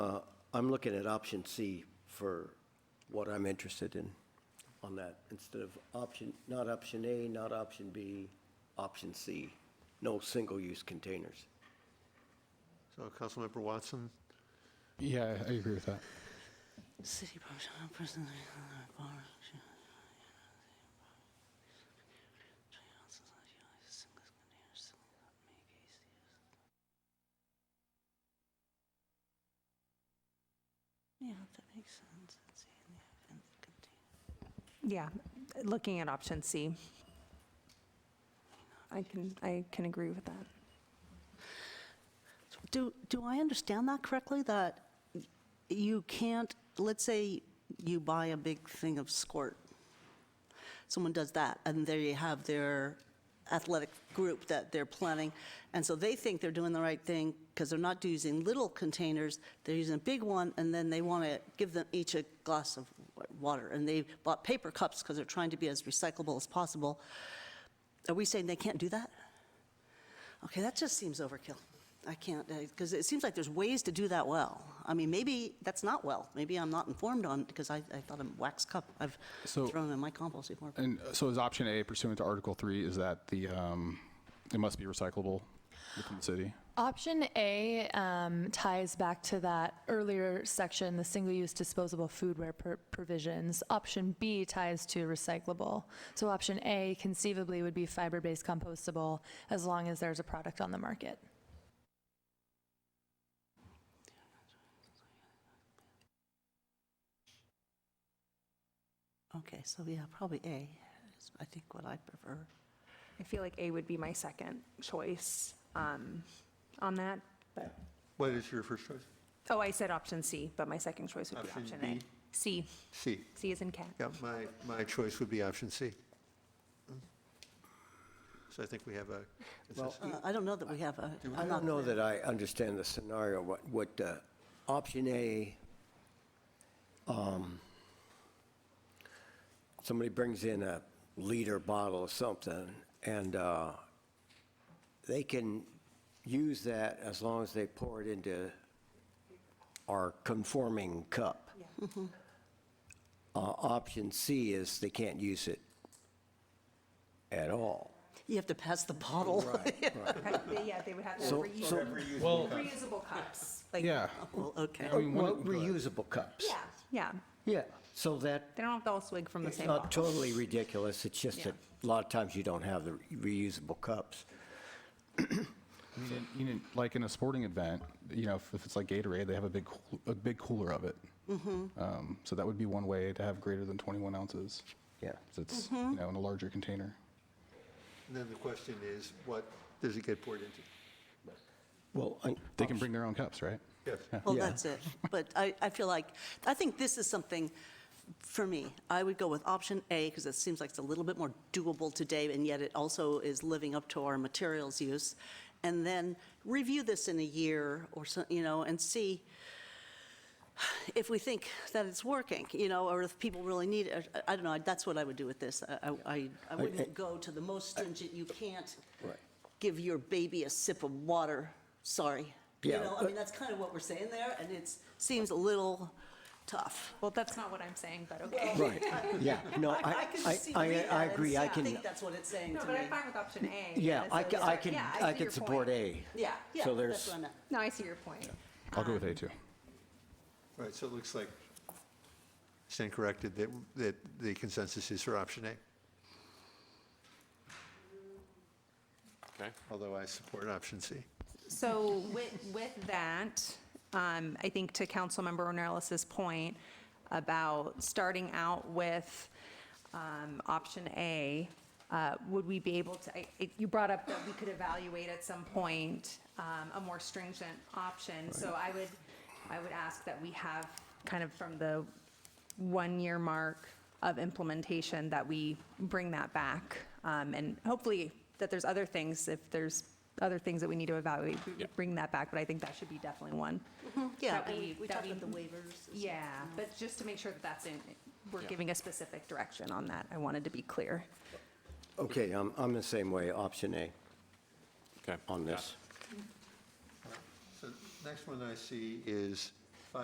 Uh, I'm looking at option C for what I'm interested in on that, instead of option, not option A, not option B, option C, no single-use containers. So Councilmember Watson, Yeah, I agree with that. City person, person, bar. Yeah, that makes sense. Let's see, in the event that contain- Yeah, looking at option C. I can, I can agree with that. Do, do I understand that correctly, that y- you can't, let's say you buy a big thing of squirt, someone does that, and there you have their athletic group that they're planning, and so they think they're doing the right thing, because they're not using little containers, they're using a big one, and then they want to give them each a glass of wa- water, and they bought paper cups because they're trying to be as recyclable as possible. Are we saying they can't do that? Okay, that just seems overkill. I can't, because it seems like there's ways to do that well. I mean, maybe that's not well. Maybe I'm not informed on, because I, I thought a wax cup, I've So- thrown in Oh, my compost before. Uh, And uh, so is option A pursuant to Article 3 is that the, um, it must be recyclable within the city? Option A um, ties back to that earlier section, the single-use disposable foodware per- provisions. Option B ties to recyclable. So option A conceivably would be fiber-based compostable as long as there's a product on the market. Okay, so yeah, probably A is, I think, what I prefer. I feel like A would be my second choice um, on that, but, what is your first choice? oh, I said option C, but my second choice would be Option option B. A. C, C. C is in cat. Yeah, my, my choice would be option C. So I think we have a, Well, Uh, I don't know that we have a, I don't know that I understand the scenario, what, what, uh, option A, um, somebody brings in a liter bottle of something, and uh, they can use that as long as they pour it into our conforming cup. Uh, Option C is they can't use it at all. you have to pass the bottle. Yeah, they would have So- so- Well, reusable cups. like- yeah. Well, okay. I mean, Well, one- uh, reusable cups. Yeah, yeah. Yeah, so that, They don't have to all swig from the it's same not bottle. totally ridiculous, it's just that a lot of times you don't have the reusable cups. I mean, in- you know, like in a sporting event, you know, if, if it's like Gatorade, they have a big, cool- a big cooler of it. Um, so that would be one way to have greater than 21 ounces. Yeah. So it's, you know, in a larger container. and then the question is, what does it get poured into? Well, I- They can bring their own cups, right? Yes. Well, Yeah. that's it. But I, I feel like, I think this is something, for me, I would go with option A, because it seems like it's a little bit more doable today, and yet it also is living up to our materials use. And then review this in a year or so, you know, and see if we think that it's working, you know, or if people really need it. I I don't know, that's what I would do with this. I- I, I, I wouldn't go to the most stringent, you can't Right. give your baby a sip of water, sorry. You Yeah, uh, know, I but- mean, that's kind of what we're saying there, and it seems a little tough. Well, that's not what I'm saying, but okay. Right, yeah, no, I, could I, see- I, read that I and agree, I I can, think that's what it's saying No, to but me. I'm fine with option A. yeah, I can, so- I can, yeah, I see can your support point. A. Yeah, yeah, So that's there's, what I meant. No, I see your point. I'll go with A too. All right, so it looks like, stand corrected, that, that the consensus is for option A, Okay. although I support option C. So with, with that, um, I think to Councilmember Ornellis's point about starting out with um, option A, uh, would we be able to, I- I- you brought up that we could evaluate at some point um, a more stringent option. So I would, I would ask that we have kind of from the one-year mark of implementation, that we bring that back. Um, And hopefully that there's other things, if there's other things that we need to evaluate, we bring that back, but I think that should be definitely one. Yeah, That and we- we that talked we- about the waivers. as Yeah, but just to make sure that that's in, we're Yeah. giving a specific direction on that. I wanted to be clear. okay, I'm, I'm the same way, option A Okay. on this. So next one I see is